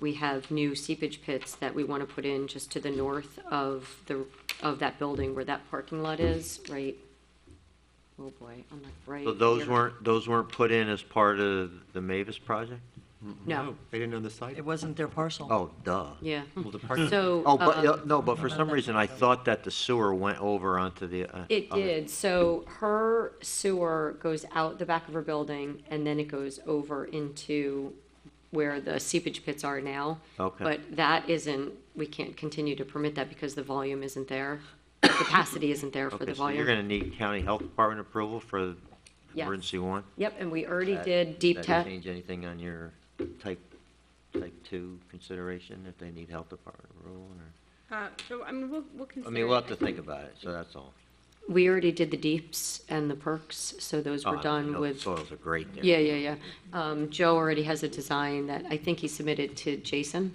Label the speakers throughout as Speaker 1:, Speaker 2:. Speaker 1: we have new seepage pits that we want to put in just to the north of the, of that building where that parking lot is, right? Oh, boy, I'm like, right.
Speaker 2: So those
Speaker 1: here.
Speaker 2: weren't, those weren't put in as part of the Mavis project?
Speaker 1: No,
Speaker 3: They didn't own the site? Hmm.
Speaker 4: It wasn't their parcel.
Speaker 2: Oh, duh.
Speaker 1: yeah.
Speaker 3: Well, the park-
Speaker 1: So.
Speaker 2: Oh, but, uh,
Speaker 1: um,
Speaker 2: no, but for some reason, I thought that the sewer went over onto the. uh,
Speaker 1: It
Speaker 2: other-
Speaker 1: did, so her sewer goes out the back of her building, and then it goes over into where the seepage pits are now.
Speaker 2: Okay.
Speaker 1: But that isn't, we can't continue to permit that because the volume isn't there, capacity isn't there for
Speaker 2: Okay,
Speaker 1: the
Speaker 2: so you're
Speaker 1: volume.
Speaker 2: gonna need county health department approval for
Speaker 1: Yes.
Speaker 2: emergency one?
Speaker 1: Yep, and we already
Speaker 2: That-
Speaker 1: did deep
Speaker 2: that
Speaker 1: tech,
Speaker 2: Change anything on your type, type two consideration if they need health department approval or?
Speaker 5: Uh, So, I mean, we'll, we'll
Speaker 2: I
Speaker 5: consider.
Speaker 2: mean, we'll
Speaker 5: it.
Speaker 2: have to think about it, so that's all.
Speaker 1: we already did the deeps and the perks, so those
Speaker 2: Oh,
Speaker 1: were
Speaker 2: I
Speaker 1: done
Speaker 2: know the
Speaker 1: with.
Speaker 2: Soils are great there.
Speaker 1: Yeah, yeah, yeah. Um, Joe already has a design that I think he submitted to Jason.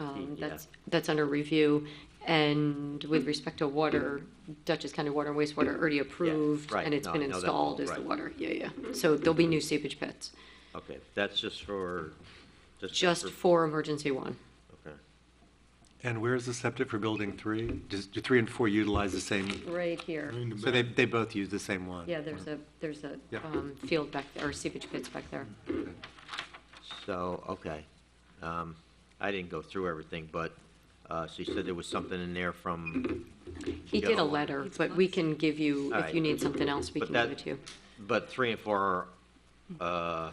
Speaker 1: Um,
Speaker 2: Yeah.
Speaker 1: that's, that's under review. And with respect to water, Dutchess County Water and Wastewater already approved,
Speaker 2: right.
Speaker 1: and it's
Speaker 2: No,
Speaker 1: been
Speaker 2: I know that
Speaker 1: installed
Speaker 2: well,
Speaker 1: as the
Speaker 2: right.
Speaker 1: water. Yeah, yeah. So there'll be new seepage pits,
Speaker 2: Okay, that's just for, just.
Speaker 1: just for emergency one.
Speaker 2: Okay.
Speaker 3: And where's the septic for building three? Does, do three and four utilize the same,
Speaker 1: Right here.
Speaker 3: so they, they both use the same one?
Speaker 1: Yeah, there's a, there's a,
Speaker 3: Yeah.
Speaker 1: um, field back, or seepage pits back there.
Speaker 2: So, okay. Um, I didn't go through everything, but, uh, so you said there was something in there from,
Speaker 1: He did a
Speaker 2: Go.
Speaker 1: letter, but we can give you, if
Speaker 2: Alright.
Speaker 1: you need something else, we
Speaker 2: But
Speaker 1: can give
Speaker 2: that-
Speaker 1: it to you.
Speaker 2: but three and four, are, uh,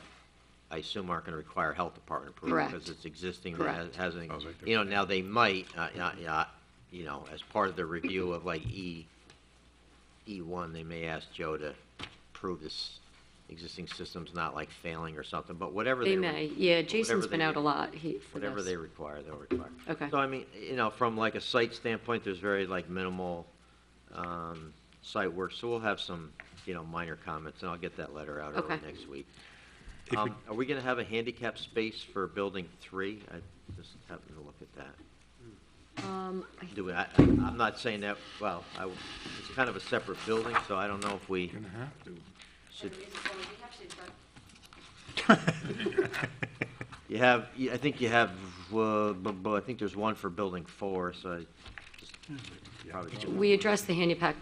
Speaker 2: I assume aren't gonna require health department approval.
Speaker 1: Correct.
Speaker 2: Because it's existing, that
Speaker 1: Correct.
Speaker 2: has- hasn't, you know, now they might, uh, yeah, yeah, you know, as part of the review of like E, E one, they may ask Joe to prove this existing system's not like failing or something, but whatever they.
Speaker 1: They
Speaker 2: re-
Speaker 1: may, yeah, Jason's
Speaker 2: whatever
Speaker 1: been
Speaker 2: they
Speaker 1: out a
Speaker 2: re-
Speaker 1: lot, he, for
Speaker 2: Whatever
Speaker 1: this.
Speaker 2: they require, they'll require.
Speaker 1: Okay.
Speaker 2: So I mean, you know, from like a site standpoint, there's very like minimal, um, site work, so we'll have some, you know, minor comments, and I'll get that letter out early
Speaker 1: Okay.
Speaker 2: next week.
Speaker 3: If we-
Speaker 2: Um, are we gonna have a handicap space for building three? I just happened to look at that.
Speaker 1: Um, I
Speaker 2: Do we, I, I- I'm not saying that, well, I, it's kind of a separate building, so I don't know if we should, you have, you- I think you have, uh, bu- bu- I think there's one for building four, so I just probably.
Speaker 1: Hmm. We addressed the handicap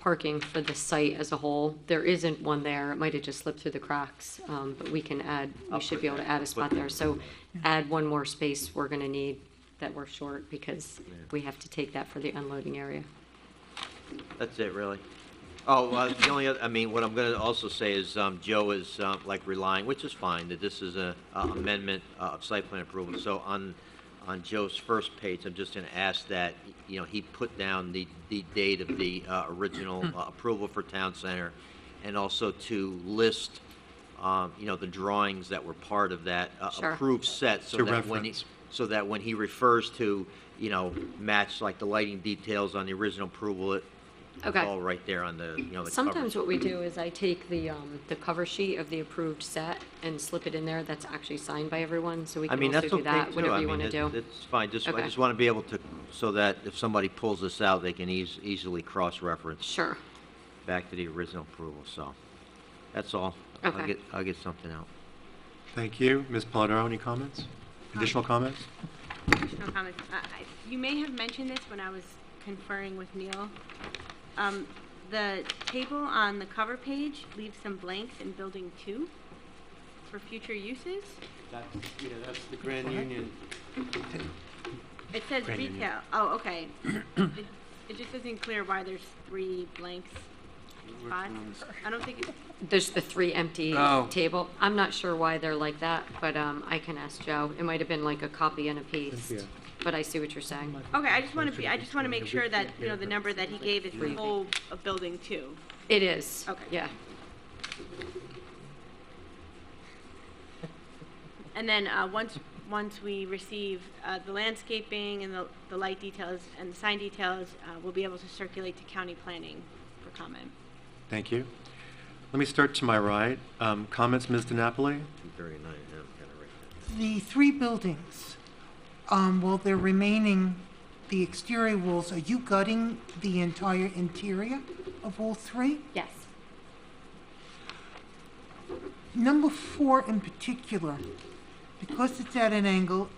Speaker 1: parking for the site as a whole. There isn't one there. It might have just slipped through the cracks, um, but we can add, we
Speaker 2: I'll
Speaker 1: should
Speaker 2: put
Speaker 1: be able to
Speaker 2: that-
Speaker 1: add a spot there. So add one more space we're gonna need that we're short because we have to take that for the unloading area.
Speaker 2: That's it, really. Oh, uh, the only other, I mean, what I'm gonna also say is, um, Joe is, um, like relying, which is fine, that this is a a amendment uh, of site plan approval. So on, on Joe's first page, I'm just gonna ask that, you know, he put down the, the date of the, uh, original uh, approval for Town Center, and also to list, um, you know, the drawings that were part of that uh,
Speaker 1: Sure.
Speaker 2: approved set, so
Speaker 3: To
Speaker 2: that when he,
Speaker 3: reference.
Speaker 2: so that when he refers to, you know, match like the lighting details on the original approval, it, it's
Speaker 1: Okay.
Speaker 2: all right there on the, you know, the cover. Mm-hmm.
Speaker 1: Sometimes what we do is I take the, um, the cover sheet of the approved set and slip it in there. That's actually signed by everyone, so we
Speaker 2: I
Speaker 1: can
Speaker 2: mean,
Speaker 1: also
Speaker 2: that's
Speaker 1: do
Speaker 2: okay
Speaker 1: that,
Speaker 2: too.
Speaker 1: whatever
Speaker 2: I
Speaker 1: you
Speaker 2: mean,
Speaker 1: wanna
Speaker 2: it-
Speaker 1: do.
Speaker 2: it's fine. Just, I
Speaker 1: Okay.
Speaker 2: just want to be able to, so that if somebody pulls this out, they can eas- easily cross-reference
Speaker 1: Sure.
Speaker 2: back to the original approval, so. That's all. I'll
Speaker 1: Okay.
Speaker 2: get, I'll get something out.
Speaker 3: Thank you. Ms. Polidoro, any comments? Additional comments?
Speaker 5: Additional comments. Uh, I- You may have mentioned this when I was conferring with Neil. Um, The table on the cover page leaves some blanks in building two for future uses.
Speaker 2: That's, yeah, that's the Grand Union.
Speaker 5: It says
Speaker 3: Brandon,
Speaker 5: retail. Oh, okay. It it just isn't clear why there's three blanks spots. I don't think, it-
Speaker 1: There's the three empty
Speaker 6: Oh.
Speaker 1: table. I'm not sure why they're like that, but um, I can ask Joe. It might have been like a copy and a paste,
Speaker 3: Yeah.
Speaker 1: but I see what you're saying.
Speaker 5: okay, I just want to be, I just want to make sure that, you know, the number that he gave is the whole of building two.
Speaker 1: It is.
Speaker 5: Okay.
Speaker 1: Yeah.
Speaker 5: And then, uh, once, once we receive, uh, the landscaping and the, the light details and the sign details, uh, we'll be able to circulate to county planning for comment.
Speaker 3: Thank you. Let me start to my right. Um, Comments, Ms. DiNapoli?
Speaker 2: Two thirty-nine, yeah, I'm kind of right there.
Speaker 6: The three buildings, um, while they're remaining, the exterior walls, are you gutting the entire interior of all three?
Speaker 1: Yes.
Speaker 6: Number four in particular, because it's at an angle,